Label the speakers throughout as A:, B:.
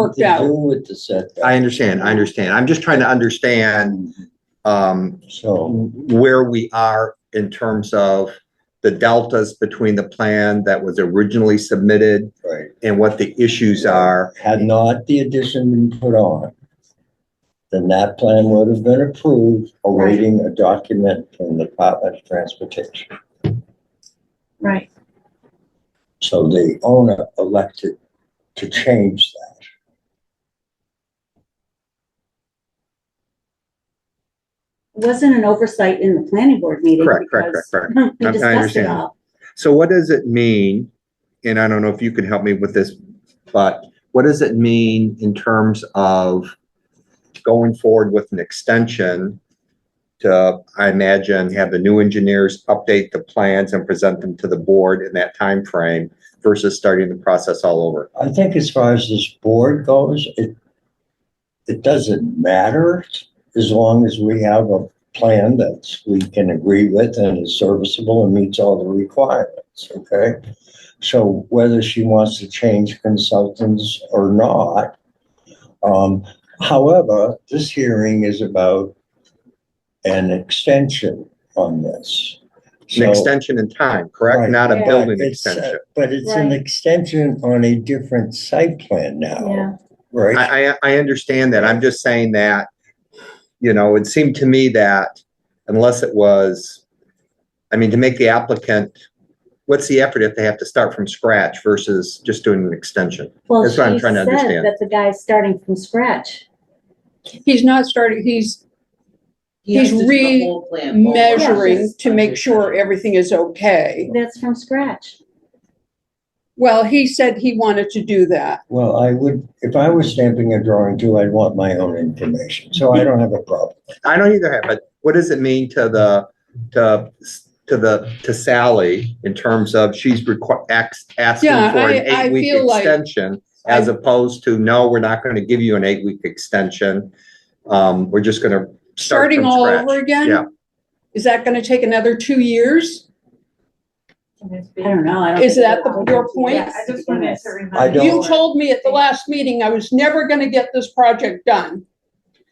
A: worked
B: to do
A: out.
B: with the setback,
C: I understand, I understand. I'm just trying to understand, um,
B: so.
C: where we are in terms of the deltas between the plan that was originally submitted
B: Right.
C: and what the issues are.
B: Had not the addition been put on, then that plan would have been approved, awaiting a document from the Department of Transportation.
A: Right.
B: So the owner elected to change that.
D: Wasn't an oversight in the planning board meeting.
C: Correct, correct, correct, correct.
D: because
C: I- I
D: We discussed
C: understand.
D: it all.
C: So what does it mean? And I don't know if you can help me with this, but what does it mean in terms of going forward with an extension to, I imagine, have the new engineers update the plans and present them to the board in that time frame versus starting the process all over?
B: I think as far as this board goes, it, it doesn't matter as long as we have a plan that we can agree with and is serviceable and meets all the requirements, okay? So whether she wants to change consultants or not, um, however, this hearing is about an extension on this.
C: An
B: So-
C: extension in time, correct?
B: Right.
C: Not a
D: Yeah.
C: building
B: It's, uh,
C: extension.
B: But it's an
D: Right.
B: extension on a different site plan
D: Yeah.
B: now, right?
C: I, I, I understand that. I'm just saying that, you know, it seemed to me that unless it was, I mean, to make the applicant, what's the effort if they have to start from scratch versus just doing an extension?
D: Well,
C: That's what I'm
D: she
C: trying to
D: said
C: understand.
D: That the guy's starting from scratch.
A: He's not starting, he's
E: He has
A: He's
E: to do the whole plan forward.
A: measuring
E: Yes.
A: to make sure everything is okay.
D: That's from scratch.
A: Well, he said he wanted to do that.
B: Well, I would, if I was stamping a drawing too, I'd want my own information, so I don't have a problem.
C: I don't either have, but what does it mean to the, to, to the, to Sally in terms of she's requ- ax- asking
A: Yeah,
C: for an
A: I- I
C: eight-week
A: feel like-
C: extension as opposed to, no, we're not going to give you an eight-week extension. Um, we're just going to start
A: Starting
C: from
A: all
C: scratch.
A: over again?
C: Yeah.
A: Is that gonna take another two years?
D: I don't know. I don't.
A: Is
D: think-
A: that the- your point?
F: Yeah, I just wanted to
B: I
F: remind.
B: don't-
A: You told me at the last meeting I was never gonna get this project done.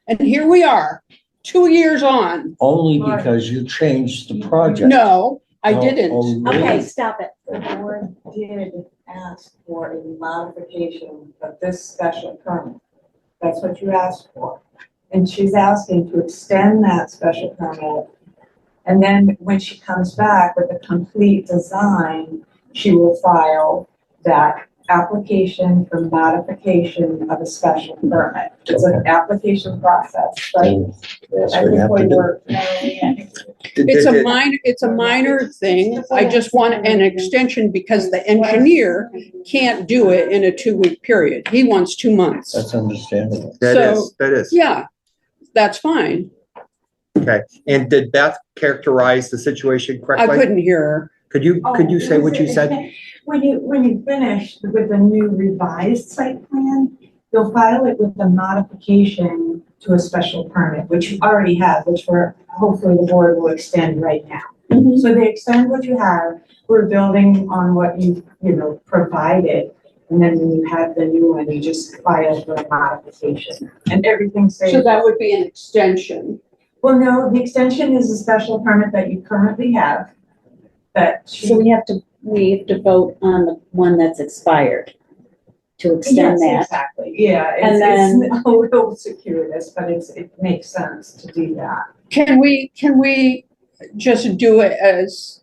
A: And here we are, two years on.
B: Only because you changed the project.
A: No, I
B: Oh,
A: didn't.
B: oh,
D: Okay,
B: really?
D: stop it.
F: The board did ask for a modification of this special permit. That's what you asked for. And she's asking to extend that special permit. And then when she comes back with a complete design, she will file that application for modification of a special permit. It's an application process, but
B: And That's what
F: I
B: you
F: think
B: have
F: we
B: to do.
F: were, Melanie, I think
C: Did-
A: It's a
C: did-
A: minor, it's a minor thing. I just want an extension because the engineer can't do it in a two-week period. He wants two months.
B: That's understandable.
C: That
A: So-
C: is, that is.
A: Yeah, that's fine.
C: And did Beth characterize the situation
A: I
C: correctly?
A: couldn't hear her.
C: Could you, could you
F: Oh,
C: say what you said?
F: When you, when you finish with the new revised site plan, you'll file it with the modification to a special permit, which you already have, which we're, hopefully the board will extend right now.
C: Mm-hmm.
D: Mhm.
F: So they extend what you have, we're building on what you, you know, provided. And then when you have the new one, you just file the modification and everything stays.
A: So that would be an extension.
F: Well, no, the extension is a special permit that you currently have, that she
D: So we have to, we have to vote on the one that's expired to extend
F: Yes,
D: that.
F: Exactly, yeah,
D: And
F: it's, it's a little circuitous, but it's, it makes sense to do that.
A: Can we, can we just do it as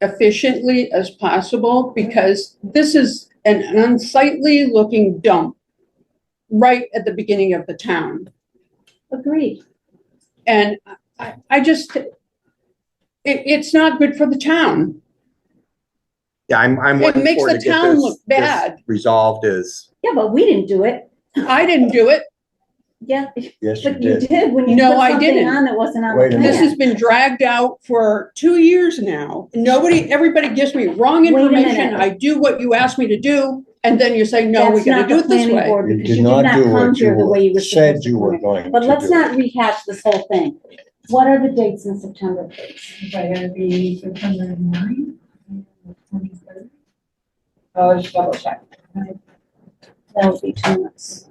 A: efficiently as possible? Because this is an unsightly looking dump right at the beginning of the town.
D: Agreed.
A: And I, I just, it, it's not good for the town.
C: Yeah, I'm, I'm
A: It
C: looking
A: makes
C: forward
A: the
C: to get
A: town
C: this-
A: look
C: this
A: bad.
C: Resolved is,
D: Yeah, but we didn't do it.
A: I didn't do it.
D: Yeah,
B: Yes, you
D: but you
B: did.
D: did when you
A: No,
D: put
A: I
D: something
A: didn't.
D: on that wasn't on the
B: Wait a
D: plan.
B: minute.
A: This has been dragged out for two years now. Nobody, everybody gives me wrong
D: Wait a
A: information.
D: minute.
A: I do what you ask me to do, and then you say, no, we're
D: That's
A: gonna
D: not
A: do
D: the
A: it this
D: planning
A: way.
D: board
B: You
D: because you
B: did not do
D: come
B: what
D: here
B: you
D: the way
B: were,
D: were
B: said
D: supposed
B: you
D: to
B: were
D: come
B: going to do.
D: But let's not rehash this whole thing. What are the dates in September?
F: But it'll be September Oh, nine, twenty-third. I'll just double check.
D: that would be two months.